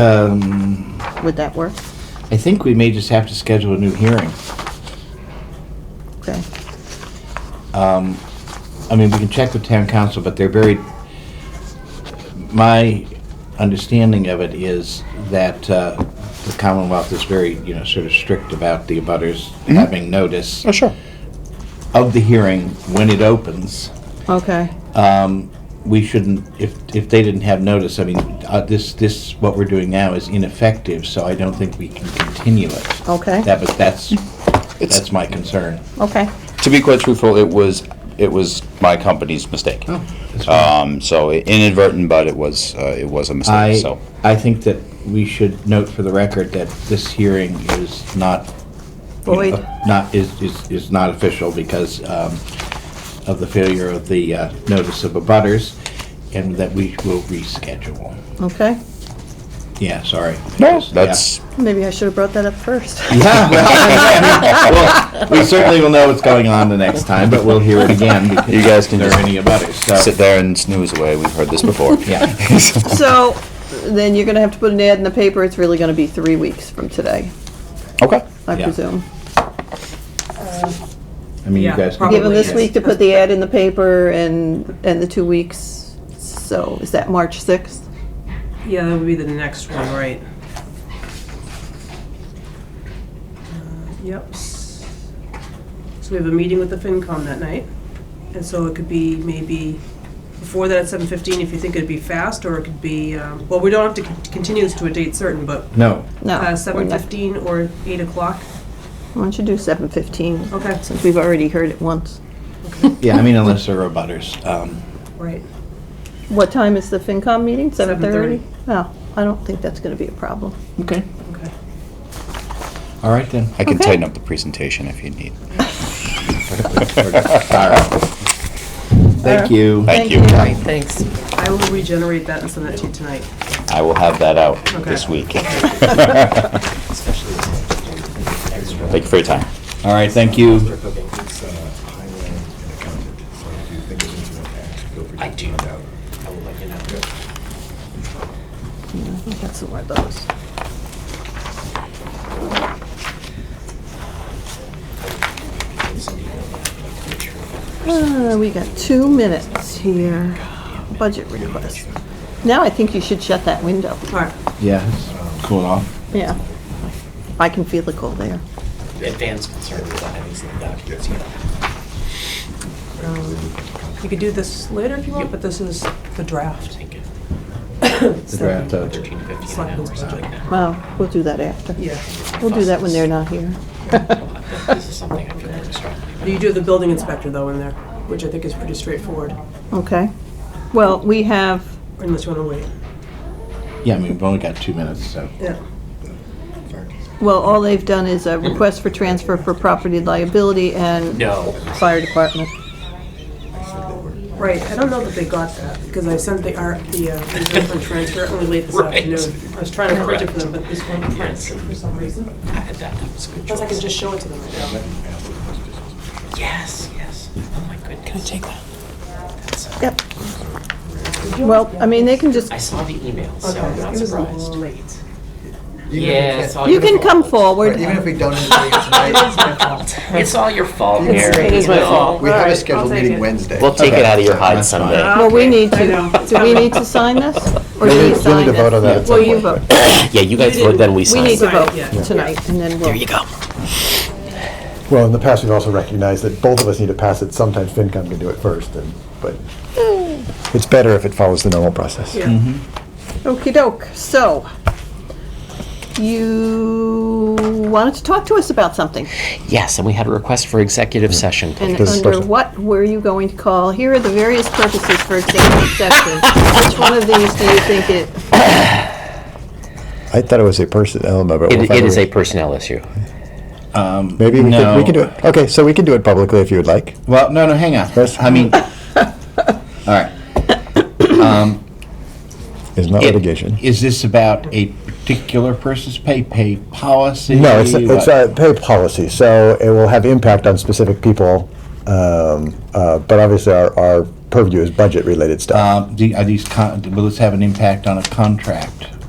Um, Would that work? I think we may just have to schedule a new hearing. Okay. Um, I mean, we can check with town council, but they're very, my understanding of it is that uh, the Commonwealth is very, you know, sort of strict about the abutters having notice Oh, sure. of the hearing when it opens. Okay. Um, We shouldn't, if, if they didn't have notice, I mean, uh, this, this, what we're doing now is ineffective, so I don't think we can continue it. Okay. That, but that's, It's- that's my concern. Okay. To be quite truthful, it was, it was my company's mistake. That's fine. Um, so inadvertent, but it was, uh, it was a I, mistake, so. I think that we should note for the record that this hearing is not. you know, Void. Not, is, is, is not official because um, of the failure of the uh, notice of abutters, and that we will reschedule. Okay. Yeah, sorry. No, Yeah. that's, Maybe I should have brought that up first. Yeah, well, well, we certainly will know what's going on the next time, but we'll hear it again because You guys can there are just any abutters, sit so. there and snooze away, we've heard this before. Yeah. So then you're gonna have to put an ad in the paper. It's really gonna be three weeks from today, Okay, I Yeah. presume. I mean, you Yeah, guys. can- probably. Give them this yes. week to put the ad in the paper and, and the two weeks. So is that March sixth? Yeah, that would be the next one, right? Uh, Yep. S- So we have a meeting with the FinCom that night, and so it could be maybe before that at seven fifteen, if you think it'd be fast, or it could be, um, well, we don't have to con- continue this to a date certain, but uh, No, No. we're not. seven fifteen or eight o'clock. Why don't you do seven fifteen? Okay. Since we've already heard it once. yeah, I mean, unless there are abutters. um, Right. What time is the FinCom meeting? Seven thirty? 7:30. Oh, I don't think that's gonna be a problem. Okay, Okay. all right then. I can Okay. tighten up the presentation if you need. Thank you. Thank you. Thank Bye. Thanks. I will regenerate that and send that to you tonight. I will have that out this Okay. week. Thank you for your time. All right, thank you. It's uh, Highland and accountant, so if you think of anything you want to ask, feel free to. I do. I will let you know. I think that's one of those. Uh, we got two minutes here. Budget request. Now I think you should shut that window. All right. Yeah, it's cool off. Yeah. I can feel the cold air. advanced concern without having seen the documents yet. Um, You could do this later if you want, but this is the draft. Thank you. The draft of- Thirteen to fifteen an hour, Selectmen's something like budget. that. Well, we'll do that after. Yeah. We'll do that when they're not here. This is something I feel really strongly about. You do have the building inspector though in there, which I think is pretty straightforward, Okay. Well, we have, unless you wanna wait. Yeah, I mean, we've only got two minutes, so. Yeah. well, all they've done is a request for transfer for property liability and No. fire department. Right, I don't know that they got that, because I sent the art, the, uh, reserve fund transfer only late this Right. afternoon. I was trying to print it for them, but this one can't Yes. for some reason. I had that, that was a good Unless I could choice. just show it to them right now. Yes, yes. Oh my goodness. Can I take that? That's, uh, Yep. Well, I mean, they can just, I saw the email, so I'm Okay. not It was surprised. Late. Yeah, it's all you your can come fault. But forward. even if we don't agree tonight, it's my fault. It's all your fault, It's- Mary. it is my Well, fault. We have Alright, a I'll scheduled take meeting it. Wednesday. We'll take it out of your hide That's fine. someday. Well, we need I to, know. do we need to sign this? Or We do you need- we need sign to vote it? on that at Well, some you point. vote. Yeah, you guys You vote, vote, didn't- then then we We sign. need to Sign it, vote yeah. tonight, and then we'll. go. Well, in the past, we've also recognized that both of us need to pass it. Sometimes FinCom can do it first, and, but Hmm. it's better if it follows the normal process. Yeah. Mm-hmm. Okey doke, so, you wanted to talk to us about something, Yes, and we had a request for executive session, please. and This under person. what were you going to call? Here are the various purposes for executive session. Which one of these do you think it, I thought it was a person element, but we'll It it find is a way- personnel issue. Maybe we can, No. we can do it. Okay, so we can do it publicly if you would like. Well, no, no, hang on. First- I mean, all right. It's not It- litigation. Is this about a particular person's pay, pay policy? No, it's, What? it's a pay policy, so it will have impact on specific people, um, uh, but obviously our, our purview is budget-related stuff. Um, do- Are these, con- will this have an impact on a contract?